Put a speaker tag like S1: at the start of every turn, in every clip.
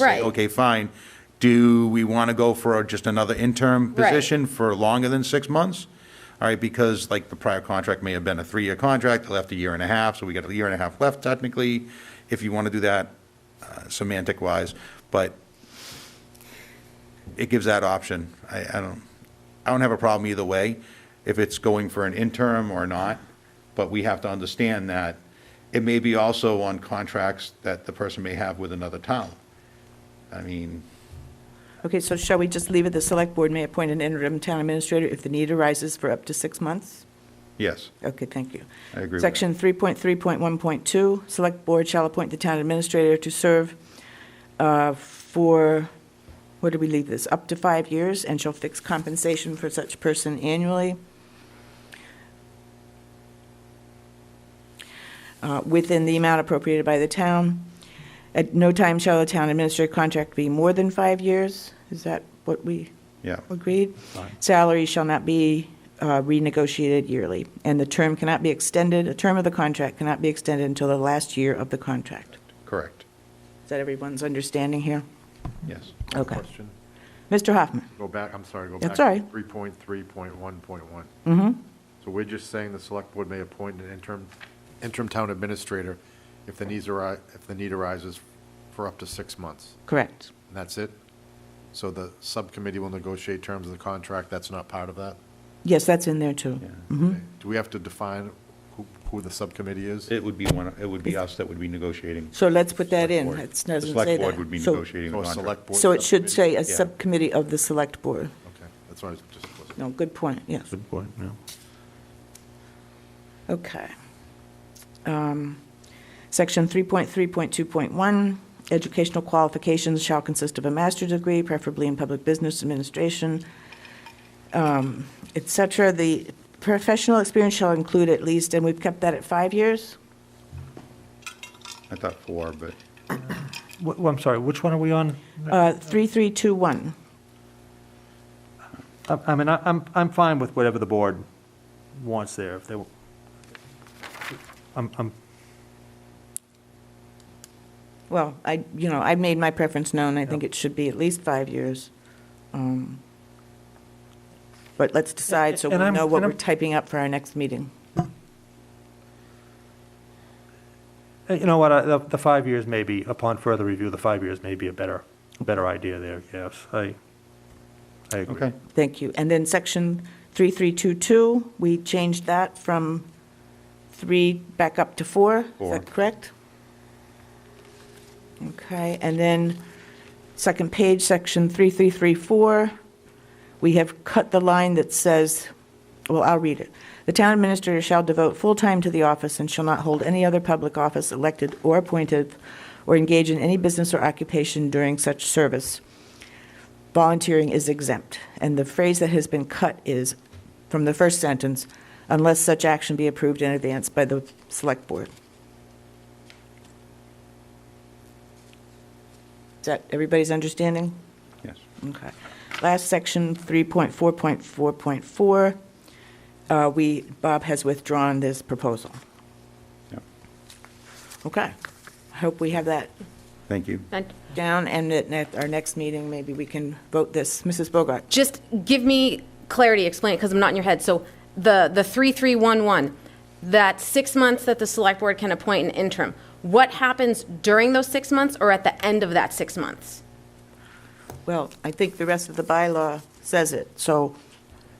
S1: say,
S2: Right.
S1: Okay, fine. Do we want to go for just another interim
S2: Right.
S1: position for longer than six months? All right, because like the prior contract may have been a three-year contract, they left a year and a half, so we got a year and a half left technically, if you want to do that uh, semantic-wise, but it gives that option. I, I don't, I don't have a problem either way, if it's going for an interim or not, but we have to understand that it may be also on contracts that the person may have with another town. I mean,
S3: Okay, so shall we just leave it, the select board may appoint an interim town administrator if the need arises for up to six months?
S1: yes,
S3: Okay, thank you.
S1: I agree with that.
S3: Section 3.3.1.2, Select Board shall appoint the town administrator to serve uh, for, where do we leave this? Up to five years, and shall fix compensation for such person annually. uh, Within the amount appropriated by the town. At no time shall the town administrator contract be more than five years. Is that what we?
S1: yeah.
S3: Agreed. Salary shall not be uh, renegotiated yearly, and the term cannot be extended, a term of the contract cannot be extended until the last year of the contract.
S1: Correct,
S3: Is that everyone's understanding here?
S1: yes.
S3: Okay.
S4: Question.
S3: Mr. Hoffman?
S4: Go back, I'm sorry, go back.
S3: That's all right.
S4: Three point three point one point one.
S3: Mm-hmm.
S4: So we're just saying the select board may appoint an interim, interim town administrator if the needs ari, if the need arises for up to six months.
S3: Correct.
S4: And that's it? So the subcommittee will negotiate terms of the contract, that's not part of that?
S3: Yes, that's in there, too.
S4: Okay. Do we have to define who, who the subcommittee is?
S1: It would be one, it would be us that would be negotiating.
S3: So let's put that in.
S1: Board.
S3: It doesn't say that.
S1: The select board would be
S3: So-
S1: negotiating the
S4: Or
S1: contract.
S4: select board?
S3: So it should
S4: subcommittee?
S3: say a
S1: Yeah.
S3: subcommittee of the select board.
S4: Okay, that's what I was just.
S3: No, good point, yes.
S5: Good point, yeah.
S3: Okay. Um, Section 3.3.2.1, educational qualifications shall consist of a master's degree, preferably in public business administration, um, et cetera. The professional experience shall include at least, and we've kept that at five years?
S1: I thought four, but
S5: Wh- wh- I'm sorry, which one are we on?
S3: Uh, 3321.
S5: I I mean, I- I'm, I'm fine with whatever the board wants there, if they, w- I'm, I'm,
S3: Well, I, you know, I made my preference known, I think it should be at least five years. Um, But let's decide, so we
S5: And I'm-
S3: know what
S5: and
S3: we're
S5: I'm-
S3: typing up for our next meeting.
S5: eh, you know what, I- the, the five years may be, upon further review, the five years may be a better, better idea there, yes, I, I agree.
S1: okay.
S3: Thank you. And then section 3322, we changed that from three back up to four. Is
S1: Four.
S3: that correct? Okay, and then second page, section 3334, we have cut the line that says, well, I'll read it. The town administrator shall devote full time to the office and shall not hold any other public office elected or appointed or engage in any business or occupation during such service volunteering is exempt. And the phrase that has been cut is, from the first sentence, unless such action be approved in advance by the select board. Is that everybody's understanding?
S1: Yes.
S3: Okay. Last section, 3.4.4.4, uh, we, Bob has withdrawn this proposal.
S1: Yep.
S3: Okay. I hope we have that
S1: Thank you.
S2: And
S3: down, and at at our next meeting, maybe we can vote this. Mrs. Bogart?
S2: Just give me clarity, explain it, because I'm not in your head. So the, the 3311, that six months that the select board can appoint an interim, what happens during those six months or at the end of that six months?
S3: Well, I think the rest of the bylaw says it, so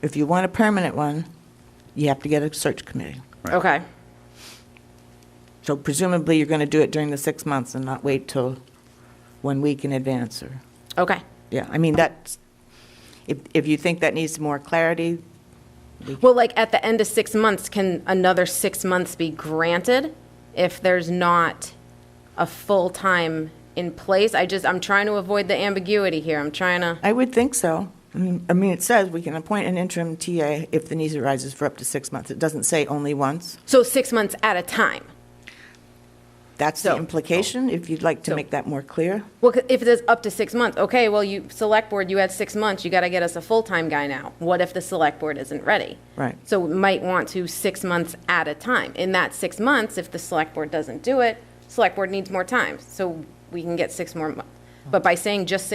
S3: if you want a permanent one, you have to get a search committee.
S1: Right.
S2: Okay,
S3: So presumably, you're going to do it during the six months and not wait till one week in advance, or,
S2: okay.
S3: yeah, I mean, that's, if, if you think that needs more clarity,
S2: Well, like, at the end of six months, can another six months be granted if there's not a full-time in place? I just, I'm trying to avoid the ambiguity here. I'm trying to,
S3: I would think so. I mean, I mean, it says we can appoint an interim TA if the need arises for up to six months. It doesn't say only once.
S2: so six months at a time.
S3: That's the
S2: So-
S3: implication, if you'd like to
S2: So-
S3: make that more clear.
S2: Well, 'cause if it is up to six months, okay, well, you, select board, you had six months, you gotta get us a full-time guy now. What if the select board isn't ready?
S3: Right.
S2: So we might want to six months at a time. In that six months, if the select board doesn't do it, select board needs more time, so we can get six more months. But by saying just six